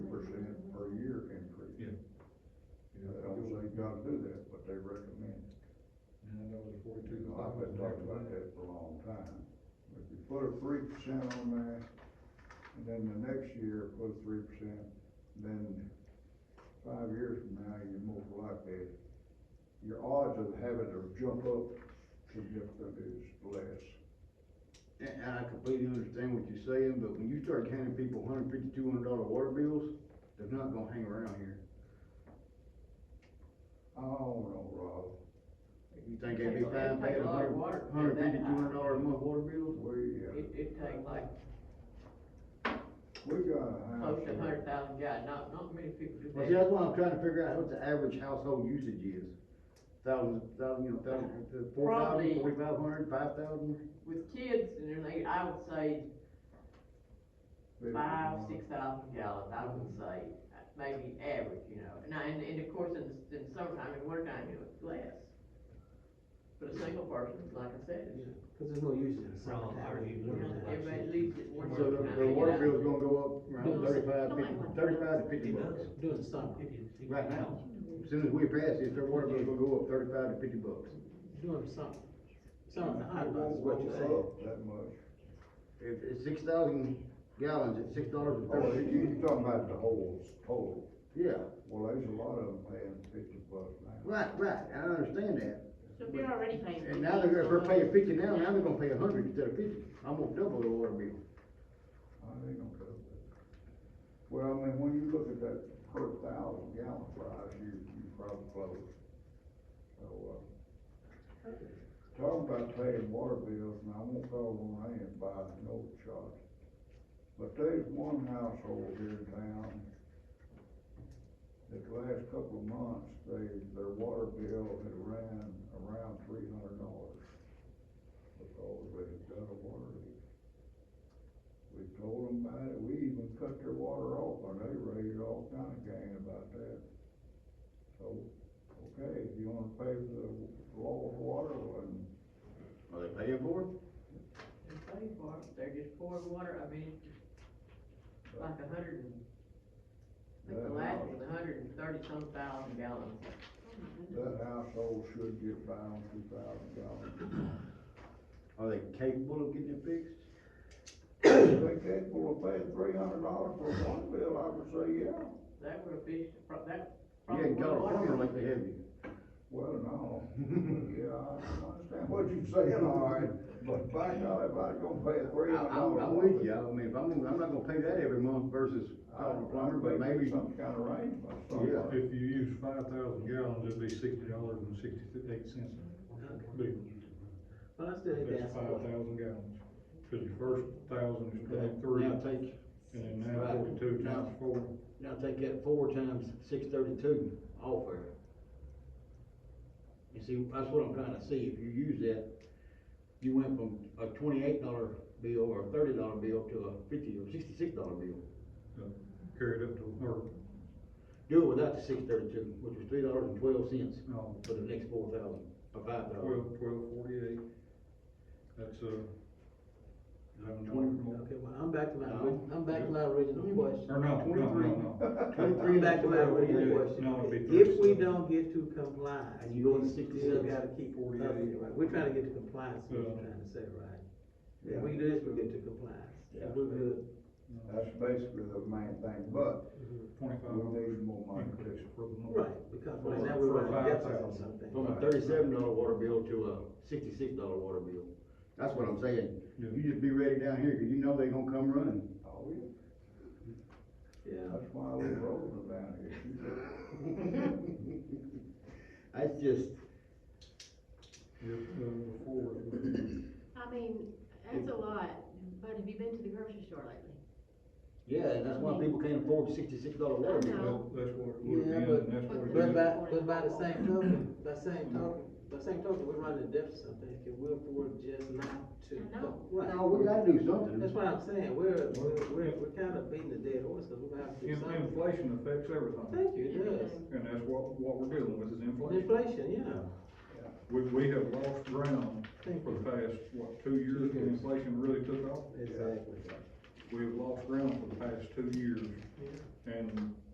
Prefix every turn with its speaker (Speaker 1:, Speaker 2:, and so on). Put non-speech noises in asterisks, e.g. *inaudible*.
Speaker 1: forty-two.
Speaker 2: You know, I've been talking about that for a long time. If you put a three percent on there, and then the next year put a three percent, then five years from now, you move like that, your odds of having to jump up significantly is less.
Speaker 3: And, and I completely understand what you're saying, but when you start handing people hundred fifty, two hundred dollar water bills, they're not gonna hang around here.
Speaker 2: I don't know, Rob,
Speaker 3: You think they'd be
Speaker 4: It'd
Speaker 3: fine paying
Speaker 4: take
Speaker 3: a
Speaker 4: a lot of water
Speaker 3: hundred,
Speaker 4: to
Speaker 3: hundred
Speaker 4: pay
Speaker 3: fifty,
Speaker 4: that
Speaker 3: two hundred dollar a month water bills?
Speaker 2: we, uh,
Speaker 4: It, it take like
Speaker 2: we got a house.
Speaker 4: close to a hundred thousand gallons, not, not many people do
Speaker 3: Well, see, that's
Speaker 4: that.
Speaker 3: why I'm trying to figure out what the average household usage is. Thousand, thousand, you know, thousand, four thousand,
Speaker 4: Probably-
Speaker 3: forty-five hundred, five thousand?
Speaker 4: With kids and everything, I would say
Speaker 2: that-
Speaker 4: five, six thousand gallons, I would say, maybe average, you know, and I, and, and of course, in, the- in the summertime, in wintertime, you know, it's less. But a single person, like I said, it's-
Speaker 5: Cause there's no use in the
Speaker 6: Well, I
Speaker 5: summertime.
Speaker 6: already-
Speaker 4: you know, everybody leaves at one.
Speaker 3: So the,
Speaker 4: time, you
Speaker 3: the
Speaker 4: know.
Speaker 3: water bill's gonna go up around
Speaker 4: No,
Speaker 3: thirty-five,
Speaker 4: no,
Speaker 3: fifty,
Speaker 4: I want-
Speaker 3: thirty-five to fifty
Speaker 6: It
Speaker 3: bucks.
Speaker 6: does, doing the summer,
Speaker 3: Right now, as soon as we pass this, their water bill's gonna go up thirty-five to fifty bucks.
Speaker 5: doing the summer. Summer's a
Speaker 2: It
Speaker 5: hundred bucks,
Speaker 2: won't
Speaker 5: is what
Speaker 2: go
Speaker 5: you're saying.
Speaker 2: up That much.
Speaker 3: If it's six thousand gallons at six dollars and
Speaker 2: Oh, you-
Speaker 3: thirty cents,
Speaker 2: you're talking about the whole total.
Speaker 3: Oh, yeah,
Speaker 2: Well, there's a lot of them paying fifty bucks now.
Speaker 3: right, right, I understand that.
Speaker 7: So we're already paying.
Speaker 3: And now they're, if they're paying fifty now, now they're gonna pay a hundred instead of fifty, I'm gonna double the water bill.
Speaker 2: I ain't gonna cut it. Well, I mean, when you look at that per thousand gallon price, you, you probably close. So, uh, talking about paying water bills, and I won't call on hand by no charge. But there's one household here in town, that the last couple of months, they, their water bill had ran around three hundred dollars. Because they had done a water leak. We told them about it, we even cut their water off, and they raised all kind of gang about that. So, okay, if you wanna pay for the law of water, and
Speaker 3: Are they paying for it?
Speaker 4: They're paying for it, they're just pouring water, I mean, it's like a hundred and, I think the last was a hundred and thirty some thousand gallons.
Speaker 2: that household should get by on two thousand dollars.
Speaker 3: Are they capable of getting it fixed?
Speaker 2: If they capable of paying three hundred dollars for one bill, I would say, yeah.
Speaker 4: That would be, that.
Speaker 3: You
Speaker 4: probably
Speaker 3: ain't got a
Speaker 4: water bill-
Speaker 3: farmer like they have you.
Speaker 2: Well, no, yeah, I understand what you're saying, all right, but by God, if I was gonna pay three
Speaker 3: I,
Speaker 2: hundred
Speaker 3: I'm,
Speaker 2: dollars.
Speaker 3: I'm with you, I mean, if I'm, gonna- I'm not gonna pay that every month versus calling a plumber,
Speaker 2: I'd
Speaker 3: but
Speaker 2: make
Speaker 3: maybe,
Speaker 2: some kind of arrangement,
Speaker 3: Yeah.
Speaker 2: something.
Speaker 1: If you use five thousand gallons, it'd be sixty dollars and sixty-eight cents a bill.
Speaker 5: But I still think
Speaker 1: That's
Speaker 5: that's.
Speaker 1: five thousand gallons, cause your first thousand is twenty-three,
Speaker 6: Now
Speaker 1: and
Speaker 6: take,
Speaker 1: then now forty-two
Speaker 6: Right.
Speaker 1: times four.
Speaker 6: now take that four times six thirty-two off there. You see, that's what I'm trying to see, if you use that, you went from a twenty-eight dollar bill or a thirty dollar bill to a fifty or sixty-six dollar bill.
Speaker 1: Carried up to, or,
Speaker 6: Do it without the six thirty-two, which was three dollars and twelve cents
Speaker 1: no,
Speaker 6: for the next four thousand, or five
Speaker 5: Uh,
Speaker 6: thousand.
Speaker 1: twelve, twelve forty-eight. That's, uh, eleven dollars more.
Speaker 5: Okay, well, I'm back to my, I'm back to my original question.
Speaker 1: Or no, no, no, no.
Speaker 5: I'm back to my original
Speaker 1: No, it'd be
Speaker 5: question. If we
Speaker 1: thirty-seven.
Speaker 5: don't get to compliance,
Speaker 6: And you
Speaker 5: you
Speaker 6: go to
Speaker 5: still
Speaker 6: 67,
Speaker 5: gotta keep up with it, right? We're trying to get to compliance, is what we're trying to say, right?
Speaker 2: Yeah.
Speaker 5: If we do this, we get to compliance,
Speaker 2: Yeah.
Speaker 5: we're good.
Speaker 2: That's basically the main thing, but
Speaker 1: Twenty-five
Speaker 2: we
Speaker 1: dollars
Speaker 2: need more money.
Speaker 1: increase for the month.
Speaker 5: Right, because
Speaker 1: For-
Speaker 5: right now we're
Speaker 1: for
Speaker 5: running a
Speaker 1: five
Speaker 5: deficit on
Speaker 1: thousand.
Speaker 5: something.
Speaker 6: From a thirty-seven dollar water bill to a sixty-six dollar water bill.
Speaker 3: that's what I'm saying.
Speaker 1: Yeah.
Speaker 3: You just be ready down here, cause you know they gonna come
Speaker 6: *laughs*
Speaker 3: running.
Speaker 2: Oh, yeah,
Speaker 5: Yeah.
Speaker 2: that's why we rolling down here. She said,
Speaker 3: That's just,
Speaker 1: If, uh, before, it would be-
Speaker 7: I mean, that's a lot, but have you been to the grocery store lately?
Speaker 6: Yeah, and that's why people can't afford sixty-six dollar water bill.
Speaker 1: well, that's what it would be,
Speaker 5: Yeah,
Speaker 1: and
Speaker 5: but-
Speaker 1: that's what it
Speaker 5: But
Speaker 1: is.
Speaker 5: by, but by the same token, by same token, by same token, we're running a deficit, I think, and we're, we're just not to.
Speaker 7: I know.
Speaker 5: Right.
Speaker 3: no, we gotta do something.
Speaker 5: That's what I'm saying, we're, we're, we're, we're kind of beating the dead horse, cause we're gonna have to do
Speaker 1: In-
Speaker 5: something.
Speaker 1: Inflation affects everything,
Speaker 5: Thank you, it does.
Speaker 1: and that's what, what we're dealing with is inflation.
Speaker 5: Inflation, yeah.
Speaker 1: We, we have lost ground for the past, what, two years when inflation really took off?
Speaker 5: Exactly.
Speaker 1: We have lost ground for the past two years,
Speaker 5: Yeah.
Speaker 1: and